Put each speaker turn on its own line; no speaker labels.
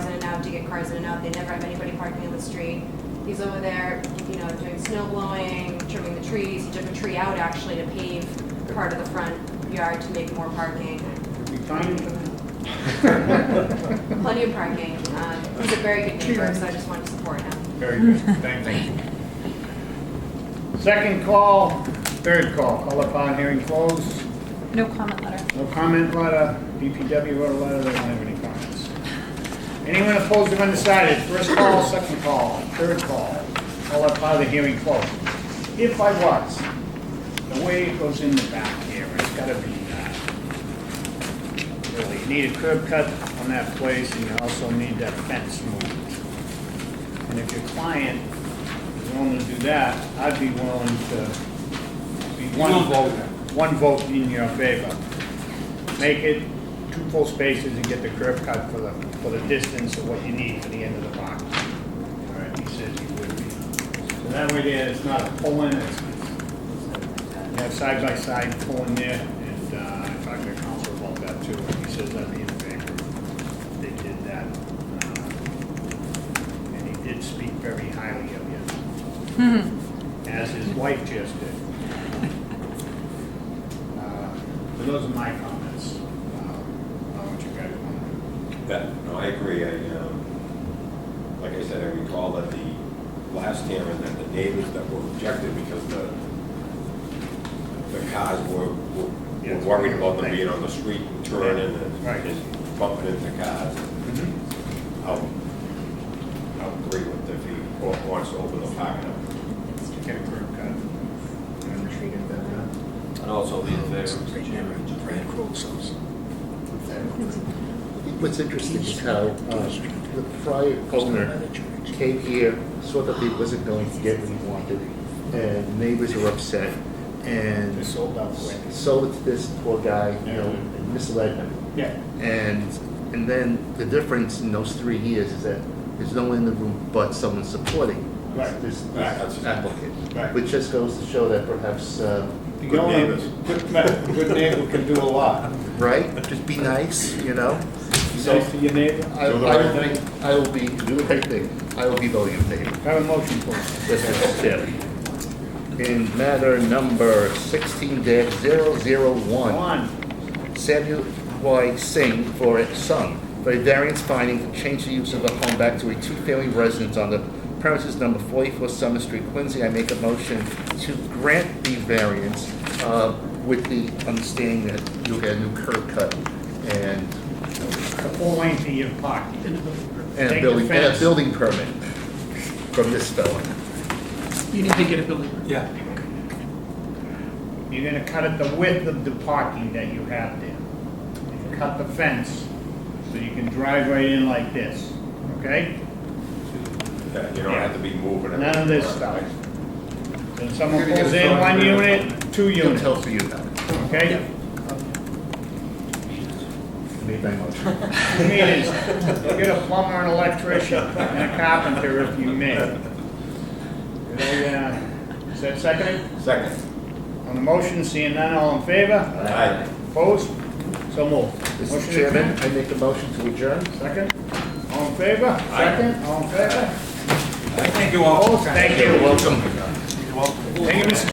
cars in and out, they never have anybody parking on the street. He's over there, you know, doing snow blowing, trimming the trees, he took a tree out actually to pave part of the front yard to make more parking.
We find him.
Plenty of parking, uh, he's a very good neighbor, so I just wanted to support him.
Very good, thank you. Second call, third call, call upon hearing closed.
No comment letter.
No comment letter, BPW wrote a letter, they don't have any comments. Anyone opposed or undecided, first call, second call, third call, all up out of the hearing closed. If I was, the way it goes in the back here, it's gotta be, uh, really, you need a curb cut on that place, and you also need that fence moved. And if your client is willing to do that, I'd be willing to be one
You'll
vote,
vote.
one vote in your favor make it two full spaces and get the curb cut for the, for the distance of what you need for the end of the box. All right, he says he would be. So that way there, it's not a pull-in, it's, you have side-by-side pull-in there, and, uh, I talked to the council about that too, and he says that'd be in favor. They did that, uh, and he did speak very highly of you, as his wife just did. Uh, So those are my comments. Uh, I want you guys to
That, no, I agree, I, um, like I said, I recall that the last hearing, that the neighbors that were objected because the, the cars were, were
Yeah.
were worried about them being on the street and turning and
Right.
and bumping into cars.
Mm-hmm.
I'll, I'll agree with if he wa- wants to open the parking up.
Get a curb cut. And treat it better.
And also be in favor.
Fran Crowell's. What's interesting is how uh, the prior owner came here, saw that he wasn't going to get what he wanted, and neighbors were upset,
They
and
sold out quick.
sold it to this poor guy, you know, and misled him.
Yeah.
And, and then the difference in those three years is that there's no one in the room but someone supporting
Right.
this this
Right, that's-
applicant.
Right.
Which just goes to show that perhaps, uh,
Good neighbors.
Good ma- good neighbor can do a lot.
right, just be nice, you know?
Be Nice to your neighbor.
I I
Do the
will
right
be, I will be, do the right thing. I will be voting in favor.
Have a motion for it.
This is Chairman. In matter number sixteen dash zero zero
Go
one,
on.
Samuel Y. Singh for his son, for a variance finding to change the use of the home back to a two-family residence on the premises number forty-four Summer Street, Quincy. I make a motion to grant the variance, uh, with the understanding that you'll get a new curb cut and,
The full length of your parking.
and
Take the
a building, and a
fence.
building permit from this fellow.
You need to get a building.
Yeah.
You're gonna cut it the width of the parking that you have there. And Cut the fence, so you can drive right in like this, okay?
Yeah, you don't have to be moving.
None of this stuff. So if someone pulls in one unit, two
He'll
units,
tell for you about it.
okay?
Made my motion.
You need is, you get a plumber, an electrician, and a carpenter if you may. They, uh, Is that seconded?
Second.
On the motion, seeing none, all in favor?
Aye.
Opposed? So moved. Motion
Mr.
to
Chairman,
adjourn?
I make a motion to adjourn.
Second? All in favor? Second? All in favor?
Thank you all.
Opposed? Thank you.
welcome.
Thank you, Mr.